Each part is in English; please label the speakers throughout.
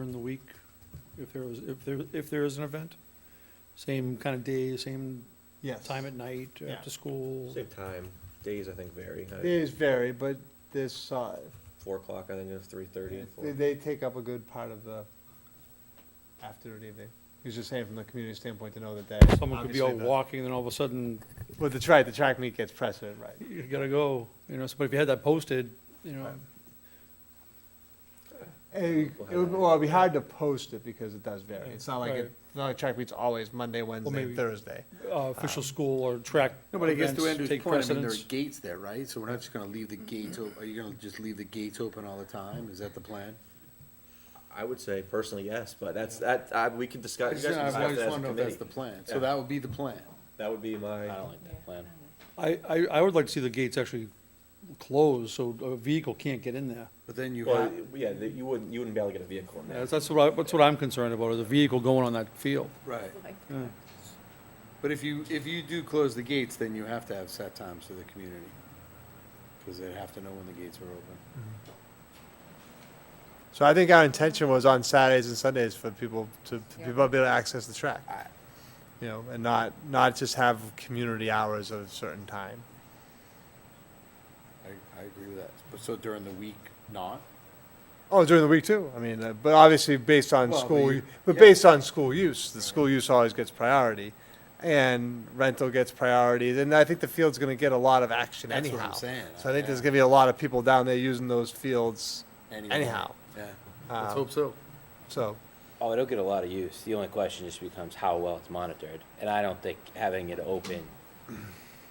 Speaker 1: week if there was, if there, if there is an event? Same kind of day, same
Speaker 2: Yes.
Speaker 1: time at night,
Speaker 2: Yeah.
Speaker 1: after school?
Speaker 3: Same time, days I think vary, Uh,
Speaker 2: Days vary, but this, uh,
Speaker 3: four o'clock, I think it's three thirty and
Speaker 2: they,
Speaker 3: four.
Speaker 2: they take up a good part of the afternoon evening. He's just saying from the community standpoint to know that that.
Speaker 1: Someone could be
Speaker 2: obviously
Speaker 1: out
Speaker 2: the-
Speaker 1: walking, then all of a sudden,
Speaker 2: With the track, the track meet gets precedent, right?
Speaker 1: you gotta go, you know, so but if you had that posted, you know,
Speaker 2: Right. It
Speaker 3: We'll have
Speaker 2: it would,
Speaker 3: that.
Speaker 2: well, it'd be hard to post it because it does vary.
Speaker 1: Yeah,
Speaker 2: It's not like,
Speaker 1: right.
Speaker 2: it- it's not like track meets always Monday, Wednesday,
Speaker 1: maybe-
Speaker 2: and Thursday.
Speaker 1: uh, official school or track
Speaker 4: No, but I guess to
Speaker 1: events
Speaker 4: Andrew's
Speaker 1: take
Speaker 4: point, I mean, there are
Speaker 1: precedence.
Speaker 4: gates there, right? So we're not just gonna leave the gates, op- are you gonna just leave the gates open all the time? Is that the plan?
Speaker 3: I would say personally, yes, but that's, that, I, we can discuss, you guys can
Speaker 4: I
Speaker 3: discuss
Speaker 4: always
Speaker 3: that as a
Speaker 4: wanna know if that's
Speaker 3: committee.
Speaker 4: the plan.
Speaker 3: Yeah.
Speaker 4: So that would be the plan.
Speaker 3: That would be
Speaker 4: I
Speaker 3: my,
Speaker 4: don't like that plan.
Speaker 1: I, I, I would like to see the gates actually closed, so a vehicle can't get in there.
Speaker 4: But then you
Speaker 3: well,
Speaker 4: have,
Speaker 3: yeah, that you wouldn't, you wouldn't be able to get a vehicle in there.
Speaker 1: That's, that's what I, that's what I'm concerned about, is a vehicle going on that field.
Speaker 4: right.
Speaker 1: Yeah.
Speaker 4: But if you, if you do close the gates, then you have to have set times for the community. Cause they have to know when the gates are open.
Speaker 2: So I think our intention was on Saturdays and Sundays for people to, for
Speaker 5: Yeah.
Speaker 2: people to be able to access the track. You know, and not, not just have community hours of a certain time.
Speaker 4: I, I agree with that. But so during the week, not?
Speaker 2: Oh, during the week too. I mean, uh, but obviously based on
Speaker 4: Well, but
Speaker 2: school,
Speaker 4: you-
Speaker 2: u- but
Speaker 4: yeah.
Speaker 2: based on school use, the school use always gets priority, and rental gets priority. And I think the field's going to get a lot of action
Speaker 4: That's what I'm
Speaker 2: anyhow.
Speaker 4: saying.
Speaker 2: So I think there's
Speaker 4: Yeah.
Speaker 2: going to be a lot of people down there using those fields
Speaker 4: Anyway.
Speaker 2: anyhow.
Speaker 4: Yeah,
Speaker 1: Uh,
Speaker 4: let's
Speaker 2: Um,
Speaker 4: hope so.
Speaker 2: so
Speaker 6: Oh, it'll get a lot of use. The only question just becomes how well it's monitored. And I don't think having it open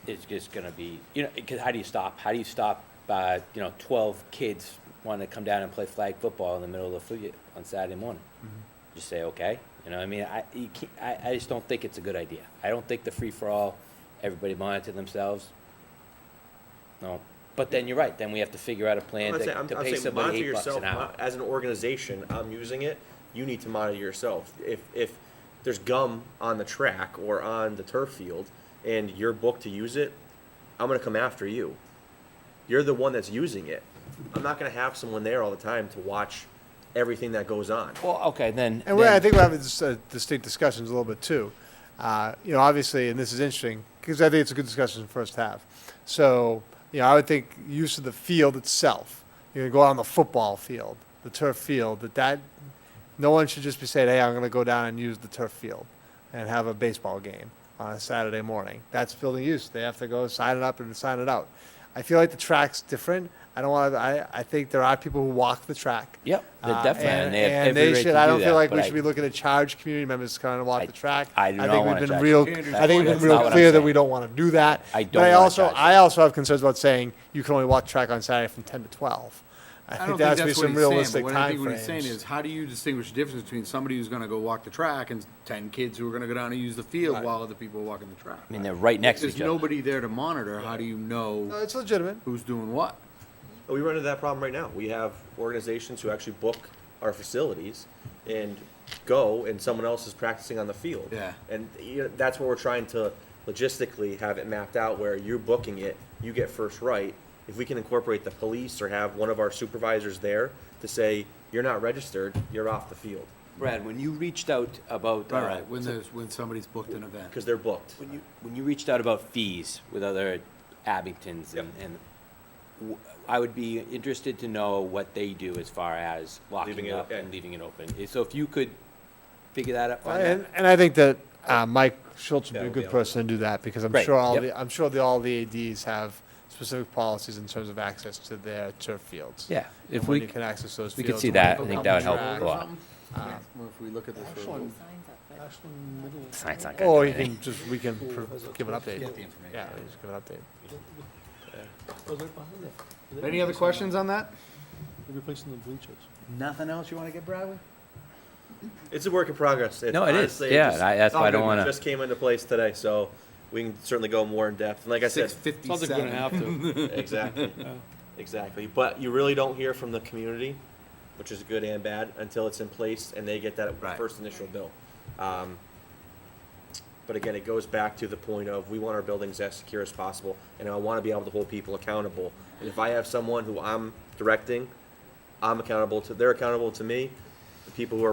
Speaker 6: is just gonna be, you know, because how do you stop? How do you stop, uh, you know, twelve kids wanting to come down and play flag football in the middle of the field on Saturday morning?
Speaker 2: Mm-hmm.
Speaker 6: Just say, okay, you know, I mean, I, you can't, I, I just don't think it's a good idea. I don't think the free-for-all, everybody monitor themselves. No, but then you're right, then we have to figure out a plan
Speaker 3: I'm
Speaker 6: to,
Speaker 3: saying, I'm,
Speaker 6: to
Speaker 3: I'm
Speaker 6: pay
Speaker 3: saying
Speaker 6: somebody
Speaker 3: monitor
Speaker 6: eight bucks
Speaker 3: yourself,
Speaker 6: an hour.
Speaker 3: Mo- as an organization, I'm using it, you need to monitor yourself. If, if there's gum on the track or on the turf field and you're booked to use it, I'm gonna come after you. You're the one that's using it. I'm not gonna have someone there all the time to watch everything that goes on.
Speaker 6: Well, okay, then.
Speaker 2: And we I
Speaker 6: then-
Speaker 2: think we're having dis- uh, distinct discussions a little bit too. Uh, you know, obviously, and this is interesting because I think it's a good discussion in the first half. So, you know, I would think use of the field itself. You're going to go out on the football field, the turf field. That that no one should just be saying, "Hey, I'm going to go down and use the turf field and have a baseball game on a Saturday morning." That's building use. They have to go sign it up and sign it out. I feel like the track's different. I don't want. to I I think there are people who walk the track.
Speaker 6: Yep, they're
Speaker 2: Uh,
Speaker 6: definitely, and they have every
Speaker 2: they
Speaker 6: right
Speaker 2: should.
Speaker 6: to
Speaker 2: I
Speaker 6: do
Speaker 2: don't feel
Speaker 6: that,
Speaker 2: like we
Speaker 6: but
Speaker 2: should
Speaker 6: I-
Speaker 2: be looking to charge community members to kind of walk
Speaker 6: I-
Speaker 2: the track.
Speaker 6: I do not
Speaker 2: think
Speaker 6: wanna
Speaker 2: we've been
Speaker 6: charge
Speaker 2: real.
Speaker 6: community.
Speaker 2: I think we've
Speaker 6: That's
Speaker 2: been
Speaker 6: not
Speaker 2: real
Speaker 6: what I'm
Speaker 2: clear that
Speaker 6: saying.
Speaker 2: we don't want to do that.
Speaker 6: I
Speaker 2: but
Speaker 6: don't
Speaker 2: I
Speaker 6: wanna
Speaker 2: also,
Speaker 6: charge
Speaker 2: I also have concerns about saying you can only walk the track on Saturday from ten to twelve. I,
Speaker 4: I
Speaker 2: think
Speaker 4: don't
Speaker 2: there
Speaker 4: think
Speaker 2: has to be
Speaker 4: that's what
Speaker 2: some
Speaker 4: he's saying,
Speaker 2: realistic
Speaker 4: but what I think what he's
Speaker 2: timeframes.
Speaker 4: saying is, how do you distinguish the difference between somebody who's gonna go walk the track and ten kids who are gonna go down and use the field while other people are walking the track?
Speaker 6: I mean, they're right next to
Speaker 4: There's
Speaker 6: each other.
Speaker 4: nobody there to monitor, how do you
Speaker 2: no,
Speaker 4: know
Speaker 2: it's legitimate.
Speaker 4: who's doing what?
Speaker 3: But we run into that problem right now. We have organizations who actually book our facilities and go, and someone else is practicing on the field.
Speaker 4: Yeah.
Speaker 3: And you know, that's what we're trying to logistically have it mapped out where you're booking it, you get first right. If we can incorporate the police or have one of our supervisors there to say, you're not registered, you're off the field,
Speaker 6: Brad, when you reached out about,
Speaker 4: All
Speaker 6: uh,
Speaker 4: right, when there's, when somebody's booked an event.
Speaker 3: because they're booked.
Speaker 6: when you, when you reached out about fees with other Abingtons and, and w- I would be interested to know what they do as far as
Speaker 3: Leaving
Speaker 6: locking
Speaker 3: it
Speaker 6: up
Speaker 3: open.
Speaker 6: and leaving it open. Eh, So if you could figure that out, find
Speaker 2: And,
Speaker 6: out.
Speaker 2: and I think that uh, Mike Schultz would be a
Speaker 3: Yeah, we'll be
Speaker 2: good
Speaker 3: able to-
Speaker 2: person to do that because I'm
Speaker 6: Right,
Speaker 2: sure all
Speaker 6: yep.
Speaker 2: the I'm sure the, all the ads have specific policies in terms of access to their turf fields.
Speaker 6: Yeah, if
Speaker 2: and when
Speaker 6: we
Speaker 2: you can access those
Speaker 6: we could
Speaker 2: fields
Speaker 6: see
Speaker 2: and
Speaker 6: that.
Speaker 2: when
Speaker 6: I
Speaker 2: you can
Speaker 6: think that would help
Speaker 2: track.
Speaker 6: a lot.
Speaker 4: Well, If we look at this. for a little-
Speaker 6: Signs not
Speaker 2: Or
Speaker 6: gonna
Speaker 2: you
Speaker 6: do anything.
Speaker 2: can just, we can pr- give an update.
Speaker 4: Get the information.
Speaker 2: Yeah, we just give an update.
Speaker 4: Any other questions on that?
Speaker 1: Replacing the bleachers.
Speaker 4: Nothing else you wanna get, Bradley?
Speaker 3: It's a work in progress.
Speaker 6: No, it is,
Speaker 3: honestly,
Speaker 6: yeah,
Speaker 3: just-
Speaker 6: I- that's why I don't
Speaker 3: it
Speaker 6: wanna,
Speaker 3: Just came into place today, so we can certainly go more in depth. And like I said,
Speaker 4: Six
Speaker 1: Sounds like we're gonna have
Speaker 4: fifty-seven.
Speaker 1: to.
Speaker 3: Exactly. Exactly. But you really don't hear from the community, which is good and bad, until it's in place and they get that
Speaker 4: Right.
Speaker 3: first initial bill. Um, but again, it goes back to the point of we want our buildings as secure as possible, and I want to be able to hold people accountable. And if I have someone who I'm directing, I'm accountable to. They're accountable to me. The people who are